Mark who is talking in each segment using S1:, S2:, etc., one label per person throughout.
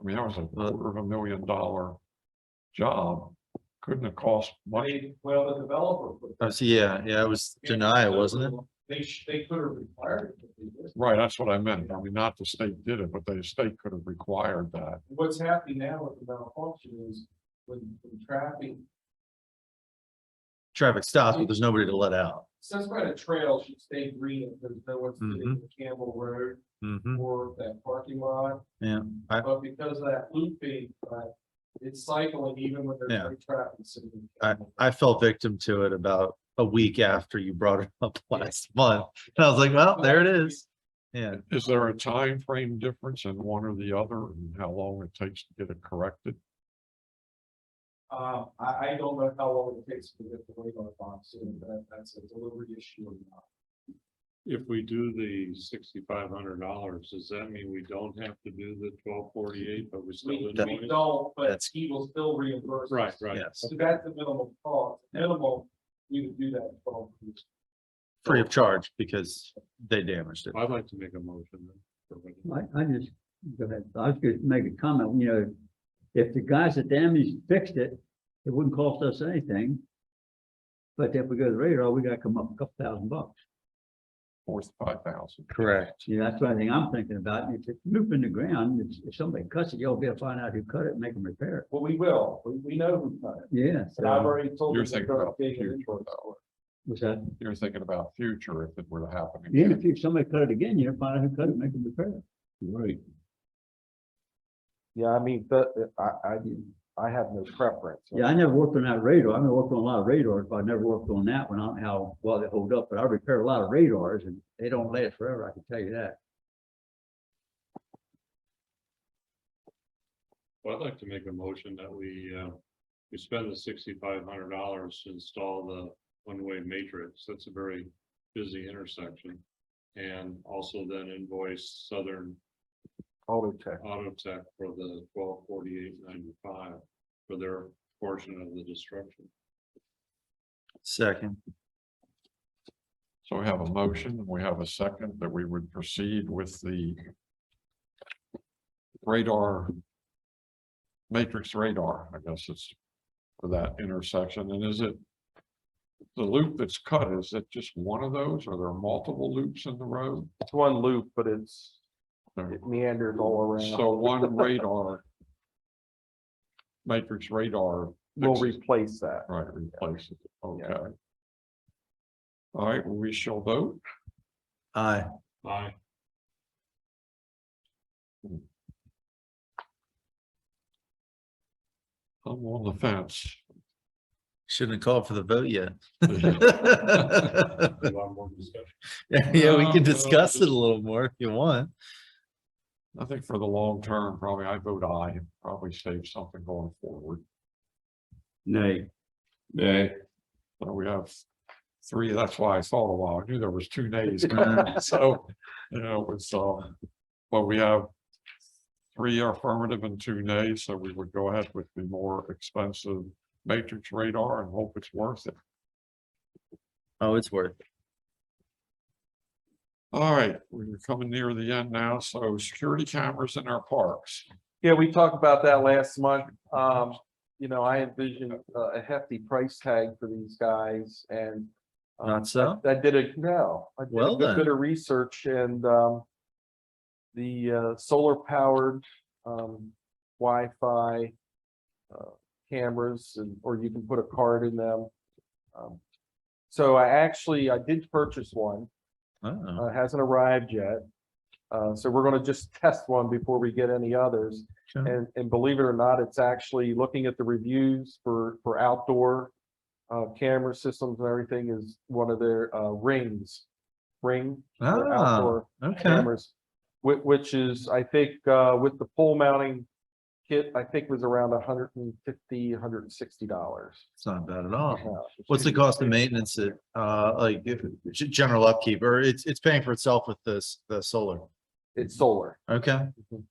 S1: I mean, that was a quarter of a million dollar job. Couldn't have cost money.
S2: They, well, the developer. put-
S3: Oh, so yeah, yeah, it was deny, wasn't it?
S2: They, sh- they could have required. it to do this.
S1: Right, that's what I meant. I mean, not the state did it, but the state could have required that.
S2: What's happening now with the malfunction is when, when traffic,
S3: Traffic stops, but there's nobody to let out.
S2: since by the trail should stay green, if there's no one's
S3: Mhm.
S2: sitting in Campbell Road
S3: Mm-hmm.
S2: or that parking lot.
S3: Yeah, I-
S2: But because of that looping, uh, it's cycling even when there's
S3: Yeah.
S2: no traffic. sitting in
S3: I,
S2: Campbell.
S3: I fell victim to it about a week after you brought it up last month. And I was like, well, there it is. Yeah,
S1: Is there a time frame difference in one or the other and how long it takes to get it corrected?
S2: Uh, I, I don't know how long it takes to get the weight on the box, and that, that's a delivery issue or not.
S4: If we do the sixty-five hundred dollars, does that mean we don't have to do the twelve forty-eight, but we still?
S2: We,
S4: invoice?
S2: we don't, but
S3: That's-
S2: he will still reimburse. us.
S4: Right, right.
S3: yes,
S2: So that's the minimum cost, minimal, we would do that. in 12 weeks.
S3: free of charge because they damaged it.
S4: I'd like to make a motion. then for what-
S5: I, I just, go ahead. I was gonna make a comment, you know, if the guys that damaged fixed it, it wouldn't cost us anything. But if we go to the radar, we gotta come up a couple thousand bucks.
S1: Fourth, five thousand.
S3: Correct.
S5: You know, that's the only thing I'm thinking about. If it's looping the ground, if, if somebody cuts it, y'all be able to find out who cut it, and make them repair it.
S2: Well, we will, we, we know who done it,
S5: Yeah,
S2: and I've
S5: so,
S2: already told you. they're
S1: You're thinking
S2: gonna
S1: about
S2: pay an
S1: future
S2: invoice.
S1: though.
S5: was that,
S1: You're thinking about future if it were to happen
S5: yeah,
S1: again.
S5: if you- somebody cut it again, you know, find out who cut it, make them repair it.
S1: Right.
S6: Yeah, I mean, the, I, I, I have no preference.
S5: Yeah, I never worked on that radar. I mean, I worked on a lot of radars, but I never worked on that one. I don't know how well they hold up, but I repair a lot of radars and they don't last forever, I can tell you that.
S4: Well, I'd like to make a motion that we, uh, we spend the sixty-five hundred dollars to install the one-way matrix. That's a very busy intersection. And also then invoice Southern
S6: Auto tech.
S4: Auto Tech for the twelve forty-eight ninety-five for their portion of the destruction.
S3: Second,
S1: So we have a motion, and we have a second that we would proceed with the radar matrix radar, I guess it's for that intersection. And is it the loop that's cut, is it just one of those? Are there multiple loops in the road?
S6: It's one loop, but it's,
S1: No.
S6: it meanders all around.
S1: So one radar matrix radar,
S6: We'll
S1: fixes-
S6: replace that.
S1: right, replaces it,
S6: Yeah.
S1: okay. All right, we shall vote.
S3: aye.
S4: Aye.
S1: I'm on the fence.
S3: Shouldn't have called for the vote yet.
S4: A lot more discussion.
S3: Yeah, we can
S1: No,
S3: discuss it a little more if you want.
S1: I think for the long term, probably I vote aye and probably save something going forward.
S5: Nay.
S1: Yeah. So we have three, that's why I thought a while, I knew there was two nays coming, so, you know, it's, um, but we have three affirmative and two nays, so we would go ahead with the more expensive matrix radar and hope it's worth it.
S3: Oh, it's worth it.
S1: All right, we're coming near the end now, so security cameras in our parks.
S6: Yeah, we talked about that last month. Um, you know, I envisioned a- a hefty price tag for these guys and um,
S3: Not so?
S6: I did a, no, I did
S3: Well
S6: a
S3: then.
S6: good bit of research and, um, the, uh, solar powered, um, Wi-Fi uh, cameras and, or you can put a card in them. Um, So I actually, I did purchase one,
S3: Oh,
S6: uh, hasn't arrived yet. Uh, so we're gonna just test one before we get any others.
S3: Okay.
S6: And, and believe it or not, it's actually looking at the reviews for, for outdoor uh, camera systems and everything is one of their, uh, rings. Ring. for
S3: Ah,
S6: outdoor
S3: okay.
S6: cameras, which, which is, I think, uh, with the pole mounting kit, I think was around a hundred and fifty, hundred and sixty dollars.
S3: It's not bad at all. What's the cost of maintenance at, uh, like, if- g- general upkeep, or it's, it's paying for itself with this, the solar?
S6: It's solar.
S3: Okay.
S6: Mhm.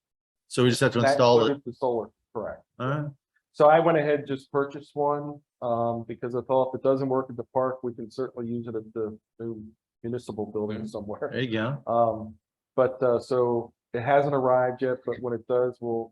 S3: So we just have to
S6: That
S3: install it.
S6: includes The solar, correct.
S3: Alright,
S6: So I went ahead and just purchased one, um, because I thought if it doesn't work at the park, we can certainly use it at the new municipal building somewhere.
S3: there you go.
S6: Um, but, uh, so it hasn't arrived yet, but when it does, we'll,